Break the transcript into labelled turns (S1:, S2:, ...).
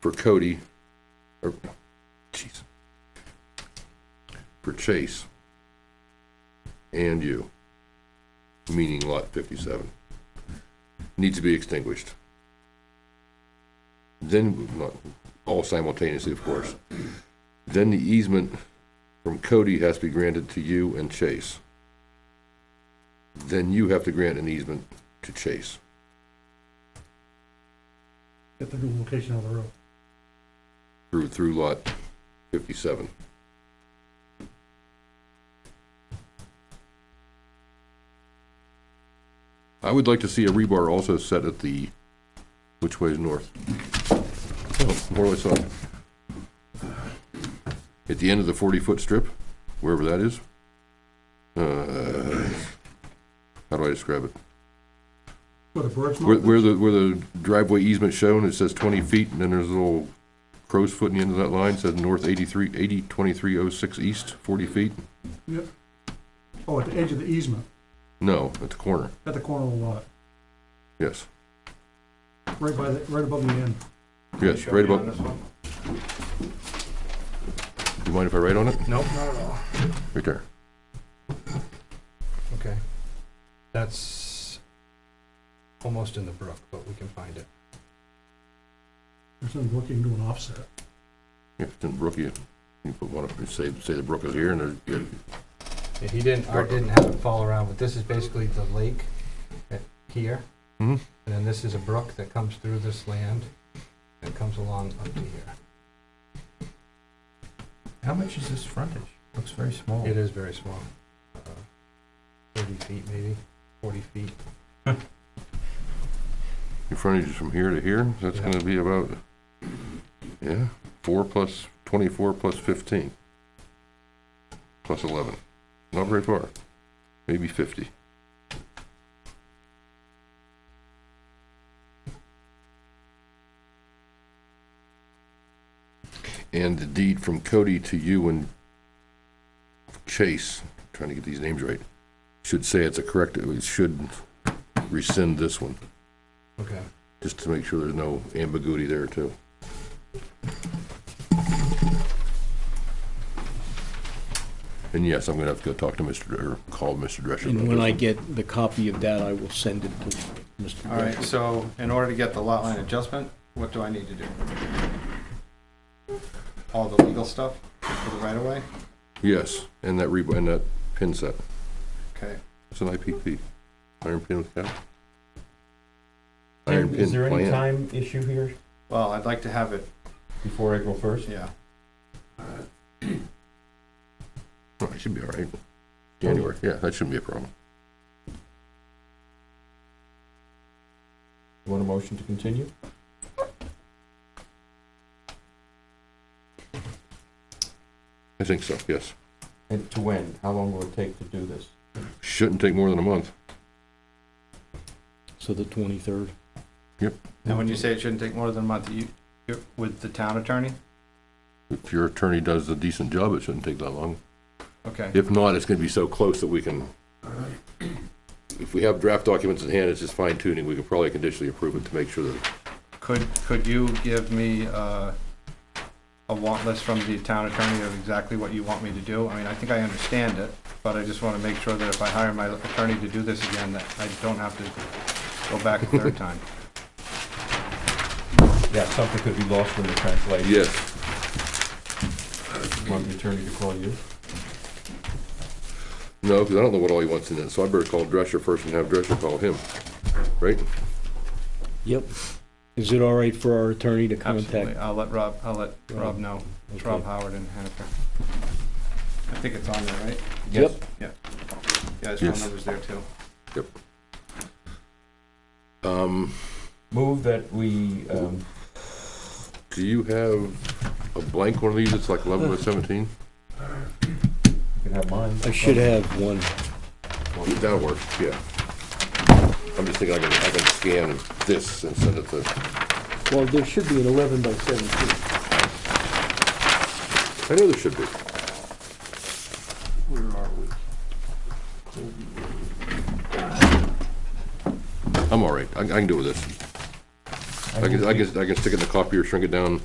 S1: for Cody, or, jeez, for Chase and you, meaning lot fifty-seven, needs to be extinguished. Then, not all simultaneously, of course. Then the easement from Cody has to be granted to you and Chase. Then you have to grant an easement to Chase.
S2: Get the new location on the road.
S1: through, through lot fifty-seven. I would like to see a rebar also set at the, which way is north? Oh, More or less on. At the end of the forty-foot strip, wherever that is. Uh, How do I describe it?
S2: Where the bird's
S1: Where,
S2: mouth
S1: where the, where the driveway easement shown, it says twenty feet, and then there's a little crow's foot in the end of that line, says north eighty-three, eighty, twenty-three oh six east, forty feet?
S2: Oh, at the edge of the easement,
S1: No, at the corner,
S2: at the corner of the lot,
S1: yes,
S2: right by the, right above the end.
S1: yes, right about, you mind if I write on it?
S3: Nope, not at all.
S1: Right there,
S3: Okay. That's almost in the brook, but we can find it.
S2: There's some looking to an offset.
S1: yeah, it's in Brookie, you can put one up, and say, say the brook is here, and there's, yeah,
S3: Yeah, he didn't, I didn't have it fall around, but this is basically the lake at here.
S1: Mhm.
S4: Mm-hmm.
S3: And then this is a brook that comes through this land and comes along up to here.
S4: How much is this frontage? Looks very small.
S3: It is very small. uh, Thirty feet maybe, forty feet.
S1: your frontage is from here to here, so that's
S3: Yeah.
S1: gonna be about, yeah, four plus, twenty-four plus fifteen, plus eleven, not very far, maybe fifty. And the deed from Cody to you and Chase, trying to get these names right, should say it's a correct, it should rescind this one
S3: Okay.
S1: just to make sure there's no ambiguity there too. And yes, I'm gonna have to go talk to Mr., Dr- or call Mr. Drescher.
S5: And
S1: about
S5: when
S1: this
S5: I
S1: one.
S5: get the copy of that, I will send it to Mr.
S4: All right,
S5: Gresham.
S4: so in order to get the lot line adjustment, what do I need to do? All the legal stuff for the right of way?
S1: Yes, and that re, and that pin set,
S4: Okay.
S1: it's an IPP, iron pin with cap. Iron
S6: Is
S1: pin
S6: there any
S1: plan,
S6: time issue here
S4: Well, I'd like to have it,
S6: before April first?
S4: yeah.
S1: Oh, it should be all right. January, yeah, that shouldn't be a problem.
S6: Want a motion to continue?
S1: I think so, yes.
S6: And to when? How long will it take to do this?
S1: Shouldn't take more than a month.
S5: So the 23rd.
S4: And when you say it shouldn't take more than a month, you, you're with the town attorney?
S1: If your attorney does a decent job, it shouldn't take that long.
S4: Okay,
S1: If not, it's gonna be so close that we can, if we have draft documents in hand, it's just fine tuning, we could probably conditionally approve it to make sure that,
S4: could, could you give me, uh, a want list from the town attorney of exactly what you want me to do? I mean, I think I understand it, but I just wanna make sure that if I hire my attorney to do this again, that I don't have to go back a third time.
S6: Yeah, something could be lost in the translation.
S1: yes,
S6: Want the attorney to call you?
S1: no, because I don't know what all he wants in it, so I better call Drescher first and have Drescher call him, right?
S5: Yep. Is it all right for our attorney to
S4: Absolutely,
S5: contact?
S4: I'll let Rob, I'll let Rob
S5: Rob.
S4: know. It's
S5: Okay.
S4: Rob Howard and Hennifer. I think it's on there, right?
S6: Yes.
S5: Yep.
S4: Yeah, his
S1: Yes.
S4: phone number's there too.
S1: Um,
S6: Move that we, um,
S1: do you have a blank one of these, it's like eleven by seventeen?
S6: you can have mine.
S5: I should have one.
S1: That'll work, yeah. I'm just thinking I can, I can scan this and send it to,
S5: Well, there should be an 11 by 17.
S1: I know there should be.
S2: Where are we?
S1: I'm all right, I I can do with this. I can, I can, I can stick it in the copier, shrink it down,